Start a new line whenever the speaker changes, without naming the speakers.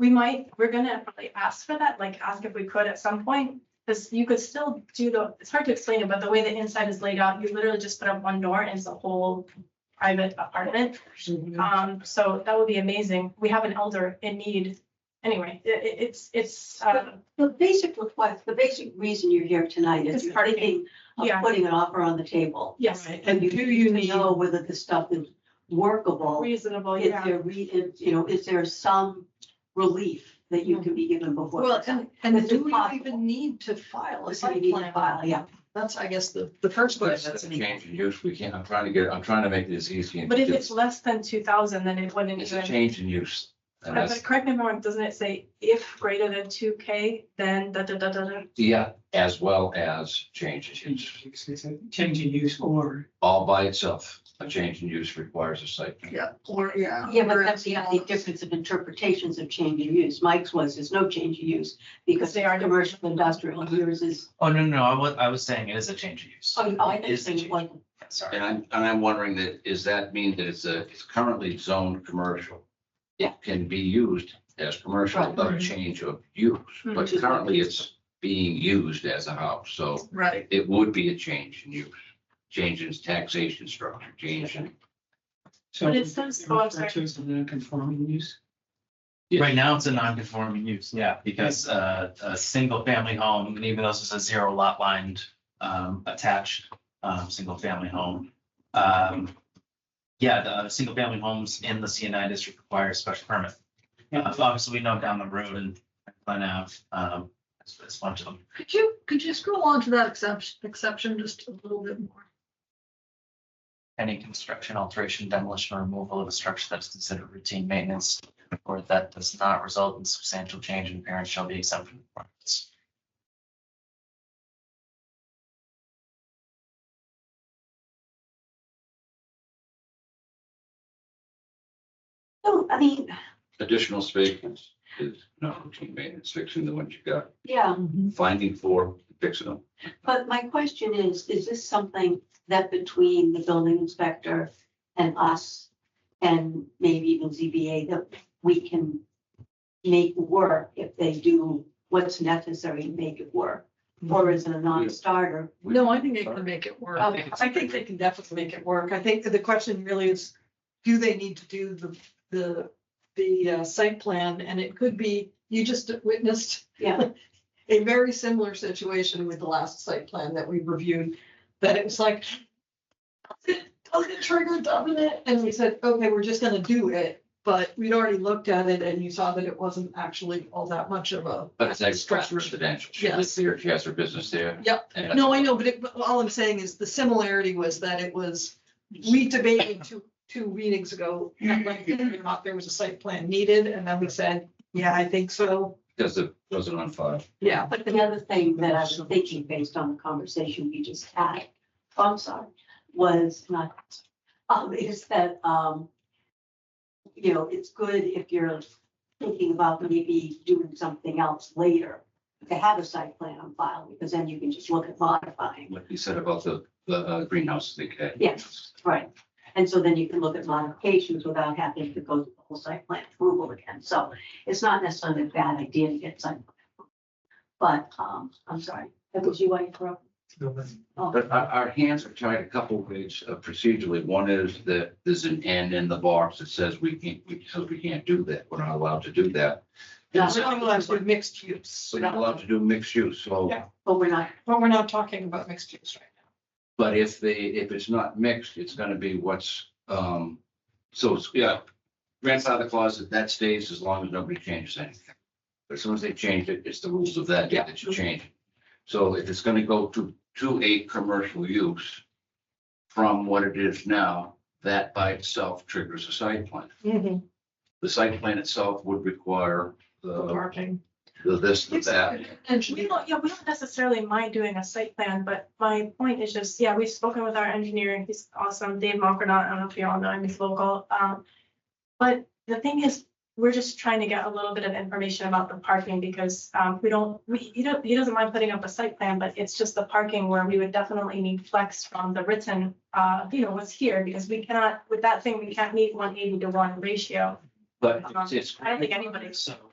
we might, we're gonna probably ask for that, like ask if we could at some point. Cause you could still do the, it's hard to explain it, but the way the inside is laid out, you literally just put up one door and it's a whole private apartment.
Mm-hmm.
Mm-hmm.
Um, so that would be amazing. We have an elder in need. Anyway, it, it- it's, it's, uh,
The basic request, the basic reason you're here tonight
It's
is you're
parking.
thinking of
Yeah.
putting an offer on the table.
yes,
And you
do
need to know whether the stuff is workable.
reasonable,
Is
yeah.
there, re- is- you know, is there some relief that you can be given before?
Well, and, and
It's
do we
impossible.
even need to file a
Unless you
site
need to
plan?
file, yeah.
That's, I guess, the, the first question.
Change in use, we can't, I'm trying to get, I'm trying to make this easy. and
But if
do-
it's less than two thousand, then it wouldn't
It's a
even.
change in use. And
Uh,
that's,
But correct me if I'm wrong, doesn't it say if greater than two K, then da da da da da?
yeah, as well as change in use,
Change in use or.
all by itself. A change in use requires a site. plan.
Yeah, or, yeah.
Yeah, but that's the only difference of interpretations of change in use. Mike's was, there's no change in use because they are commercial, industrial, yours is,
Oh, no, no, no, I was, I was saying it is a change of use.
oh, I
It is a
think,
change.
like,
Sorry.
And I'm, and I'm wondering that, is that mean that it's a, it's currently zoned commercial?
Yeah.
It can be used as commercial
Right.
without a change of use, but
Mhm.
currently it's being used as a house, so
Right.
it would be a change in use. Change in taxation structure, change in.
But it says- oh, I'm sorry.
References of non-conforming use.
Right now, it's a non-conforming use, yeah, because uh, a single-family home, and even though this is a zero lot lined, um, attached, um, single-family home. Um, yeah, the single-family homes in the CNI district require a special permit.
Yeah.
Uh, Obviously, we know down the road and plan out, um, it's it's a bunch of them.
Could you, could you scroll on to that exception, exception just a little bit more?
any construction, alteration, demolition, or removal of a structure that's considered routine maintenance or that does not result in substantial change in appearance shall be exempt from requirements.
no, I mean,
Additional space is- is not routine maintenance, fixing the ones you got,
yeah.
finding four, fixing them.
But my question is, is this something that between the building inspector and us and maybe even ZBA that we can make work if they do what's necessary to make it work? Or is it a non-starter?
No, I think they can make it work.
I think
I think they can definitely make it work. I think that the question really is, do they need to do the, the, the uh, site plan? And it could be, you just witnessed
Yeah,
a very similar situation with the last site plan that we reviewed, that it was like, does it does it trigger, doesn't it? And we said, okay, we're just gonna do it, but we'd already looked at it and you saw that it wasn't actually all that much of a.
But it's agricultural
stretch.
residential. She lives
Yes.
there, she has her business there.
Yep.
And that's-
No, I know, but it, but all I'm saying is the similarity was that it was, we debated two, two meetings ago, at length, whether or not there was a site plan needed, and then we said, yeah, I think so,
Does it, does it on file?
yeah.
but the other thing that I was thinking based on the conversation we just had, oh, I'm sorry, was not, um, is that, um, you know, it's good if you're thinking about maybe doing something else later, to have a site plan on file, because then you can just look at modifying,
What you said about the, the uh, greenhouse thing. okay?
Yes. right? And so then you can look at modifications without having to go through the whole site plan approval again, so it's not necessarily a bad idea to get site. plan approval. But, um, I'm sorry, that was you I interrupted. Oh.
But our, our hands are tied a couple ways uh, procedurally. One is that there's an end in the box that says we can't, we, says we can't do that. We're not allowed to do that.
Yeah.
We're not allowed to do mixed use.
We're not allowed to do mixed use, so,
Yeah.
But we're not,
But we're not talking about mixed use right now.
but if they, if it's not mixed, it's gonna be what's, um, so, it's- yeah. Grandfather clause, that- that stays as long as nobody changes anything. But as soon as they change it, it's the rules of that day that you change. it. So if it's gonna go to, to a commercial use from what it is now, that by itself triggers a site plan. the site plan itself would require the,
Parking.
the this, the that.
We don't, yeah, we don't necessarily mind doing a site plan, but my point is just, yeah, we've spoken with our engineer, and he's awesome, Dave Malkernaut, I don't know if you all know him, he's local. Um, but the thing is, we're just trying to get a little bit of information about the parking because, um, we don't, we, he don't, he doesn't mind putting up a site plan, but it's just the parking where we would definitely need flex from the written, uh, you know, what's here, because we cannot, with that thing, we can't meet one eighty to one ratio.
But it's, it's.
I don't think anybody-
So